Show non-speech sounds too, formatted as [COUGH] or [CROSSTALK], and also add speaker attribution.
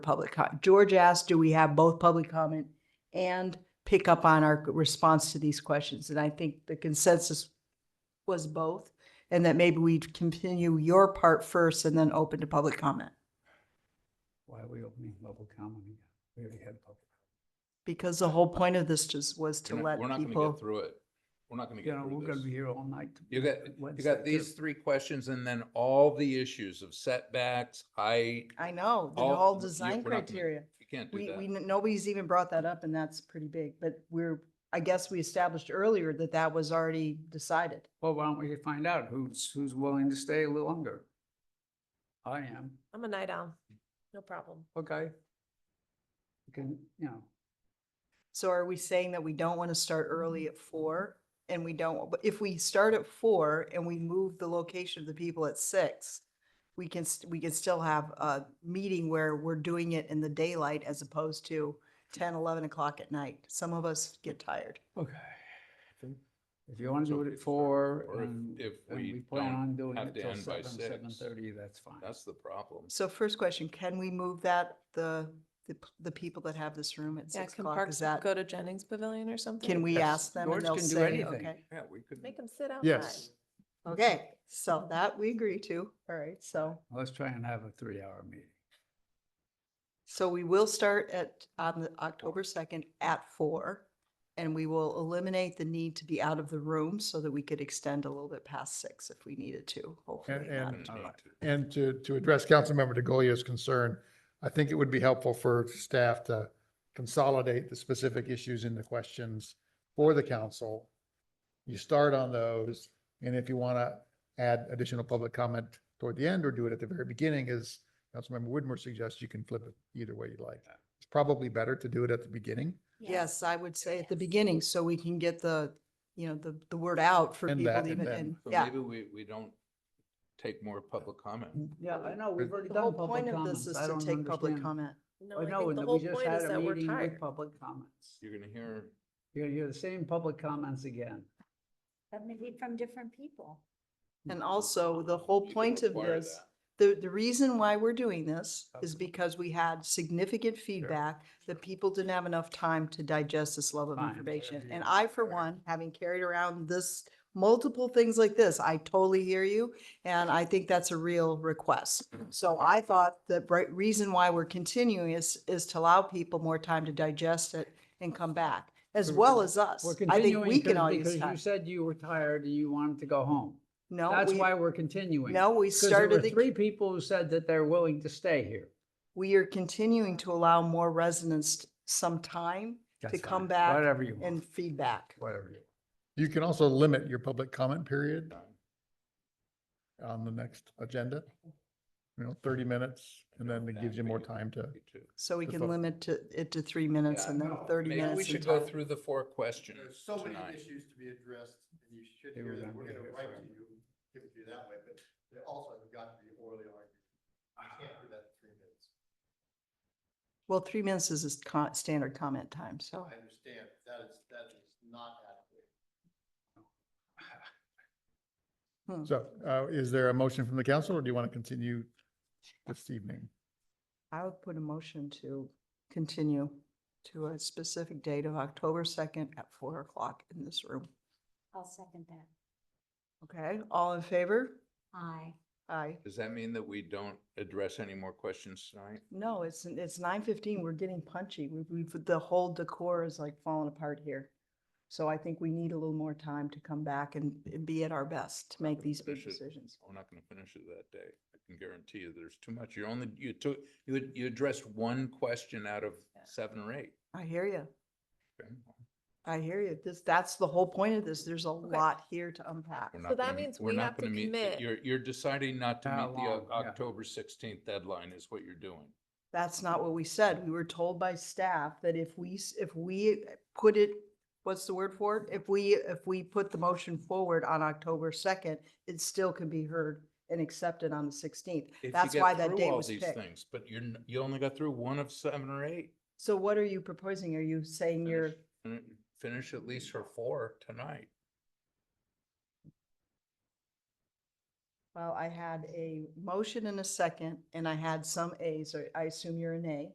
Speaker 1: public com- George asked, do we have both public comment and pick up on our response to these questions? And I think the consensus was both. And that maybe we continue your part first and then open to public comment.
Speaker 2: Why are we opening level comment again? We already had public.
Speaker 1: Because the whole point of this just was to
Speaker 3: We're
Speaker 1: let
Speaker 3: not- We're not gonna get
Speaker 1: people,
Speaker 3: through it. We're not gonna
Speaker 2: You
Speaker 3: get
Speaker 2: know,
Speaker 3: through
Speaker 2: we're gonna be
Speaker 3: this.
Speaker 2: here all night.
Speaker 3: You got, you got these three questions and then all the issues of setbacks, height.
Speaker 1: I know, the
Speaker 3: All-
Speaker 1: whole
Speaker 3: you-
Speaker 1: design
Speaker 3: we're not gonna-
Speaker 1: criteria.
Speaker 3: You can't do
Speaker 1: We, we,
Speaker 3: that.
Speaker 1: n- nobody's even brought that up and that's pretty big, but we're, I guess we established earlier that that was already decided.
Speaker 2: Well, why don't we find out who's, who's willing to stay a little longer? I am,
Speaker 4: I'm a night owl. No problem.
Speaker 2: okay. You Can, you know,
Speaker 1: So are we saying that we don't want to start early at four? And we don't, but if we start at four and we move the location of the people at six, we can, st- we can still have a meeting where we're doing it in the daylight as opposed to 10, 11 o'clock at night. Some of us get tired.
Speaker 2: okay. If you want to
Speaker 3: So
Speaker 2: do it
Speaker 3: if
Speaker 2: at
Speaker 3: we-
Speaker 2: four
Speaker 3: or if-
Speaker 2: and,
Speaker 3: if
Speaker 2: and
Speaker 3: we
Speaker 2: we plan
Speaker 3: don't
Speaker 2: on doing
Speaker 3: have
Speaker 2: it
Speaker 3: to
Speaker 2: till
Speaker 3: end by
Speaker 2: seven, seven
Speaker 3: six,
Speaker 2: thirty, that's fine.
Speaker 3: That's the problem.
Speaker 1: So first question, can we move that, the, the, p- the people that have this room at
Speaker 4: Yeah,
Speaker 1: six
Speaker 4: can
Speaker 1: o'clock? Is
Speaker 4: Parks
Speaker 1: that,
Speaker 4: go to Jennings Pavilion or something?
Speaker 1: can we
Speaker 2: Yes.
Speaker 1: ask them
Speaker 2: George
Speaker 1: and they'll
Speaker 2: can do
Speaker 1: say,
Speaker 2: anything.
Speaker 1: okay?
Speaker 3: Yeah, we could.
Speaker 4: Make them sit outside.
Speaker 5: Yes.
Speaker 1: Okay, so that we agree to. All right, so.
Speaker 2: Let's try and have a three-hour meeting.
Speaker 1: So we will start at, on the October second at four. And we will eliminate the need to be out of the room so that we could extend a little bit past six if we needed to, hopefully not.
Speaker 5: and-
Speaker 3: All right.
Speaker 5: And to, to address Councilmember DeGolia's concern, I think it would be helpful for staff to consolidate the specific issues into questions for the council. You start on those, and if you want to add additional public comment toward the end or do it at the very beginning, as Councilmember Whitmore suggests, you can flip it either way you like. It's probably better to do it at the beginning.
Speaker 1: Yes, I would say at the beginning, so we can get the, you know, the, the word out for
Speaker 5: And
Speaker 1: people
Speaker 5: that,
Speaker 1: to
Speaker 5: and
Speaker 1: even,
Speaker 5: then-
Speaker 1: and,
Speaker 3: So
Speaker 1: yeah.
Speaker 3: maybe we, we don't take more public comment.
Speaker 2: Yeah, I know, we've already
Speaker 1: The whole
Speaker 2: done
Speaker 1: point
Speaker 2: public
Speaker 1: of this
Speaker 2: comments.
Speaker 1: is
Speaker 2: I
Speaker 1: to
Speaker 2: don't
Speaker 1: take public
Speaker 2: understand.
Speaker 1: comment.
Speaker 4: No,
Speaker 2: I
Speaker 4: I
Speaker 2: know,
Speaker 4: think
Speaker 2: and
Speaker 4: the
Speaker 2: we
Speaker 4: whole
Speaker 2: just
Speaker 4: point
Speaker 2: had
Speaker 4: is
Speaker 2: a
Speaker 4: that we're
Speaker 2: meeting with
Speaker 4: tired.
Speaker 2: public comments.
Speaker 3: You're gonna hear,
Speaker 2: You hear the same public comments again.
Speaker 6: But maybe from different people.
Speaker 1: And also, the whole
Speaker 3: You can
Speaker 1: point of
Speaker 3: require
Speaker 1: this,
Speaker 3: that.
Speaker 1: the, the reason why we're doing this is
Speaker 2: Absolutely.
Speaker 1: because we had significant feedback that people didn't have enough time to digest this level of
Speaker 2: Fine.
Speaker 1: information. And
Speaker 2: Yeah.
Speaker 1: I, for one, having carried around this, multiple things like this, I totally hear you. And I think that's a real request.
Speaker 2: [CLEARS THROAT]
Speaker 1: So I thought the right reason why we're continuing is, is to allow people more time to digest it and come back, as
Speaker 2: We're
Speaker 1: well
Speaker 2: con-
Speaker 1: as us.
Speaker 2: We're
Speaker 1: I think
Speaker 2: continuing
Speaker 1: we can
Speaker 2: because-
Speaker 1: all use
Speaker 2: because you
Speaker 1: time.
Speaker 2: said you were tired and you wanted to go home.
Speaker 1: No,
Speaker 2: That's
Speaker 1: we-
Speaker 2: why we're continuing.
Speaker 1: No, we
Speaker 2: 'Cause there
Speaker 1: started
Speaker 2: were
Speaker 1: the.
Speaker 2: Three people who said that they're willing to stay here.
Speaker 1: we are continuing to allow more residents some time to
Speaker 2: That's
Speaker 1: come
Speaker 2: fine.
Speaker 1: back
Speaker 2: Whatever you
Speaker 1: and
Speaker 2: want,
Speaker 1: feedback.
Speaker 2: whatever you. want.
Speaker 5: You can also limit your public comment period on the next agenda. You know, thirty minutes, and then it gives you more time to
Speaker 1: So we
Speaker 5: Good
Speaker 1: can
Speaker 5: thought.
Speaker 1: limit to, it to three minutes
Speaker 3: Yeah,
Speaker 1: and then
Speaker 7: no,
Speaker 1: thirty
Speaker 3: Maybe we
Speaker 1: minutes.
Speaker 3: should
Speaker 1: and
Speaker 3: go
Speaker 1: time.
Speaker 3: through the four questions
Speaker 7: There's so many
Speaker 3: tonight.
Speaker 7: issues to be addressed, and you should
Speaker 2: They
Speaker 7: hear
Speaker 2: were
Speaker 7: that,
Speaker 2: gonna
Speaker 7: we're
Speaker 2: be
Speaker 7: gonna
Speaker 2: here
Speaker 7: write to
Speaker 2: forever.
Speaker 7: you, give it to you that way, but they also have got to be orally argued. You can't do that in three minutes.
Speaker 1: Well, three minutes is a con- standard comment time, so.
Speaker 7: I understand, that is, that is not adequate.
Speaker 5: So uh, is there a motion from the council or do you want to continue this evening?
Speaker 1: I would put a motion to continue to a specific date of October second at four o'clock in this room.
Speaker 6: I'll second that.
Speaker 1: Okay, all in favor?
Speaker 6: Aye.
Speaker 1: Aye.
Speaker 3: Does that mean that we don't address any more questions tonight?
Speaker 1: No, it's, it's nine fifteen. We're getting punchy. We- We've, the whole decor is like falling apart here. So I think we need a little more time to come back and and be at our best to make these big
Speaker 3: Finish it.
Speaker 1: decisions.
Speaker 3: We're not gonna finish it that day. I can guarantee you, there's too much. You only, you took, you, ad- you addressed one question out of seven or eight.
Speaker 1: I hear you.
Speaker 3: okay?
Speaker 1: I hear you. This, that's the whole point of this. There's a
Speaker 4: Okay.
Speaker 1: lot here to unpack.
Speaker 3: We're
Speaker 4: So
Speaker 3: not
Speaker 4: that
Speaker 3: gonna-
Speaker 4: means
Speaker 3: we're
Speaker 4: we
Speaker 3: not
Speaker 4: have to
Speaker 3: gonna meet the-
Speaker 4: commit.
Speaker 3: You're, you're deciding not to
Speaker 2: How
Speaker 3: meet the O-
Speaker 2: long, yeah.
Speaker 3: October sixteenth deadline is what you're doing.
Speaker 1: That's not what we said. We were told by staff that if we, s- if we put it, what's the word for it? If we, if we put the motion forward on October second, it still can be heard and accepted on the sixteenth.
Speaker 3: If you
Speaker 1: That's
Speaker 3: get
Speaker 1: why that
Speaker 3: through
Speaker 1: date
Speaker 3: all
Speaker 1: was
Speaker 3: these
Speaker 1: picked.
Speaker 3: Things, but you're, n- you only got through one of seven or eight.
Speaker 1: So what are you proposing? Are you saying you're,
Speaker 3: Finish- Finish at least her four tonight.
Speaker 1: well, I had a motion and a second and I had some As, or I assume you're an A.